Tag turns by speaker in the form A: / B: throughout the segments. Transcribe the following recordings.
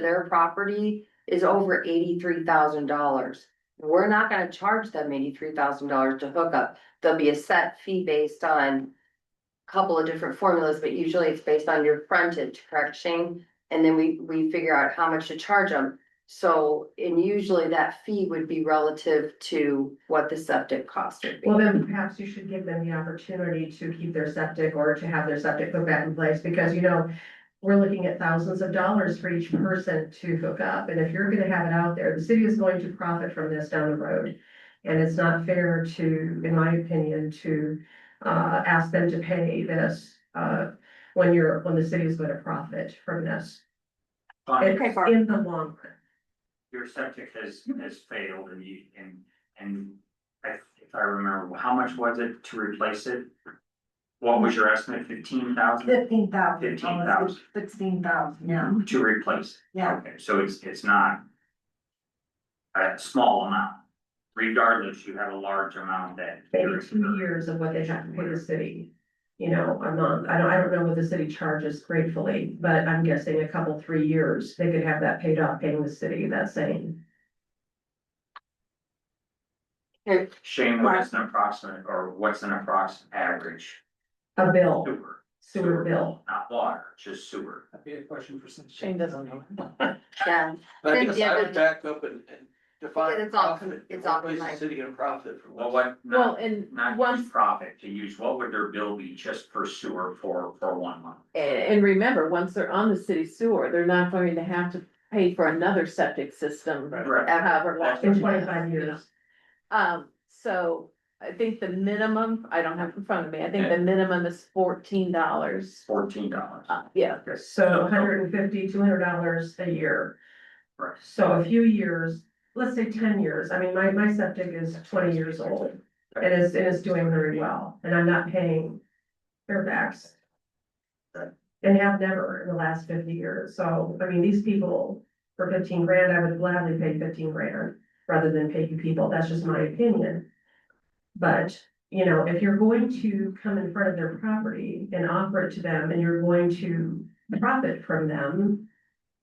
A: their property is over eighty-three thousand dollars. We're not gonna charge them eighty-three thousand dollars to hook up. There'll be a set fee based on a couple of different formulas, but usually it's based on your frontage, correct, Shane? And then we, we figure out how much to charge them. So, and usually that fee would be relative to what the septic cost would be.
B: Well, then perhaps you should give them the opportunity to keep their septic or to have their septic put back in place, because you know. We're looking at thousands of dollars for each person to hook up, and if you're gonna have it out there, the city is going to profit from this down the road. And it's not fair to, in my opinion, to uh ask them to pay this uh when you're, when the city is gonna profit from this.
C: But
A: Okay, Barb.
B: In the long
C: your septic has, has failed and you, and, and I, if I remember, how much was it to replace it? What was your estimate, fifteen thousand
D: Fifteen thousand.
C: 15,000.
D: Sixteen thousand, yeah,
C: to replace? it?
D: yeah,
C: Okay, so it's, it's not a small amount. Regardless, you have a large amount that.
B: maybe two years of what they have to pay the city. You know, a month, I don't, I don't know what the city charges gratefully, but I'm guessing a couple, three years, they could have that paid off, paying the city that same.
C: Shane, what is an approximate, or what's an approximate average
B: A bill,
C: sewer,
B: sewer bill,
C: not water, just sewer?
E: That'd be a question for Cynthia.
F: Shane doesn't know.
A: Yeah,
E: But I guess
A: Cynthia
E: I
A: doesn't-
E: would back up and, and define.
A: Because it's all-
E: profit.
A: it's
E: What
A: all
E: place is
A: combined.
E: City gonna profit from
C: Well,
E: what?
C: what,
F: Well,
C: not,
F: and
C: not
F: once,
C: use profit to use, what would their bill be just for sewer for, for one month?
F: and remember, once they're on the city sewer, they're not going to have to pay for another septic system.
C: Right.
A: ever.
F: However long.
B: in twenty-five years.
F: Um, so I think the minimum, I don't have it in front of me, I think the minimum is fourteen dollars.
C: Fourteen dollars.
F: Uh, yeah,
B: So 150 200 dollars a year.
C: Right.
B: So a few years, let's say ten years, I mean, my, my septic is twenty years old. And it's, and it's doing very well, and I'm not paying Fairfax. And have never in the last fifty years, so, I mean, these people, for fifteen grand, I would gladly pay fifteen grand rather than pay you people, that's just my opinion. But you know, if you're going to come in front of their property and offer it to them and you're going to profit from them,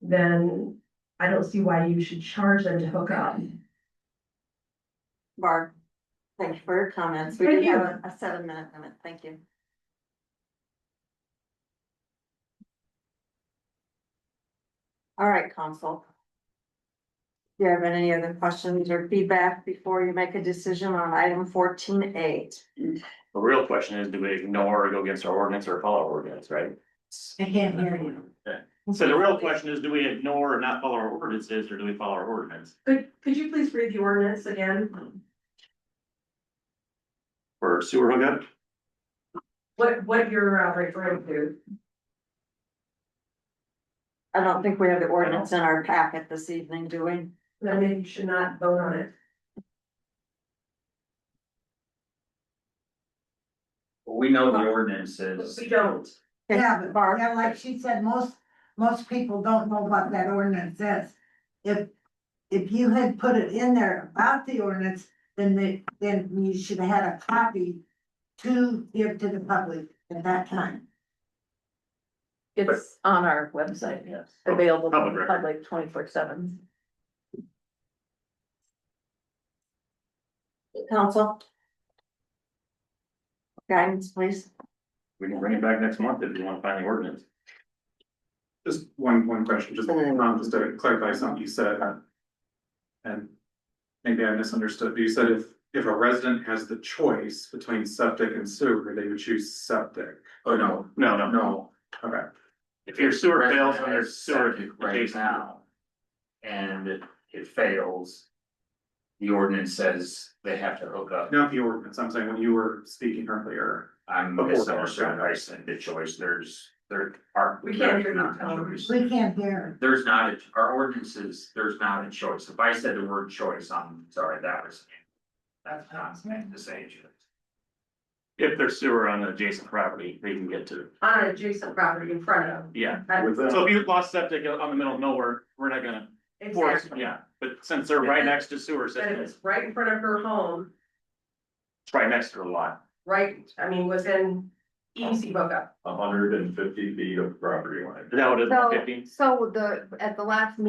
B: then I don't see why you should charge them to hook up.
D: Barb, thank you for your comments, we do
B: Thank
D: have a a seven minute limit, thank you. All right, council. Do you have any other questions or feedback before you make a decision on item fourteen eight?
G: The real question is, do we ignore or go against our ordinance or follow our ordinance, right?
D: I can't hear you.
G: So the real question is, do we ignore or not follow our ordinances, or do we follow our ordinance?
B: Could, could you please read the ordinance again?
G: For sewer hookup,
B: What, what you're uh, referring to?
D: I don't think we have the ordinance in our packet this evening, do we?
B: Then maybe you should not vote on it.
C: We know the ordinance is,
B: We don't.
H: Yeah, but
D: Barb?
H: yeah, like she said, most, most people don't know what that ordinance says. If, if you had put it in there about the ordinance, then they, then you should have had a copy to give to the public at that time.
F: it's on our website,
G: yes,
C: Oh,
F: available to
G: Public
F: the
G: record.
F: public twenty-four seven.
D: Council? Guidance, please.
G: we can bring it back next month if you wanna find the ordinance.
I: Just one, one question, just, um, just to clarify something you said. uh, And maybe I misunderstood, but you said if, if a resident has the choice between septic and sewer, they would choose septic.
C: oh, no,
G: No, no,
C: no.
I: Okay,
G: if your sewer
C: Resident
G: fails, then there's
C: has
G: sewer
C: septic Right
G: adjacent.
C: now. And it- it fails. The ordinance says they have to hook up.
I: not the ordinance, I'm saying when you were speaking earlier,
C: I'm
I: Before-
C: misunderstanding, I said the choice, there's, there are.
B: We can't hear you,
C: there's not a
B: Tom.
C: choice.
H: We can't hear.
C: There's not, a our ordinances, there's not a choice. If I said the word choice, I'm sorry, that was. That's not meant to say choice.
G: If there's sewer on the adjacent property, they can get to,
B: On an adjacent property in front of.
G: yeah.
I: with that.
G: So if you lost septic on the middle of nowhere, we're not gonna force,
B: Exactly.
G: yeah, but since they're right next to sewer
B: But if
G: system,
B: it's right in front of her home,
G: it's right next to a lot.
B: right, I mean, within easy hookup.
I: hundred and fifty feet of property line.
G: Is that what it is,
A: So-
G: fifteen?
A: So the, at the last meeting,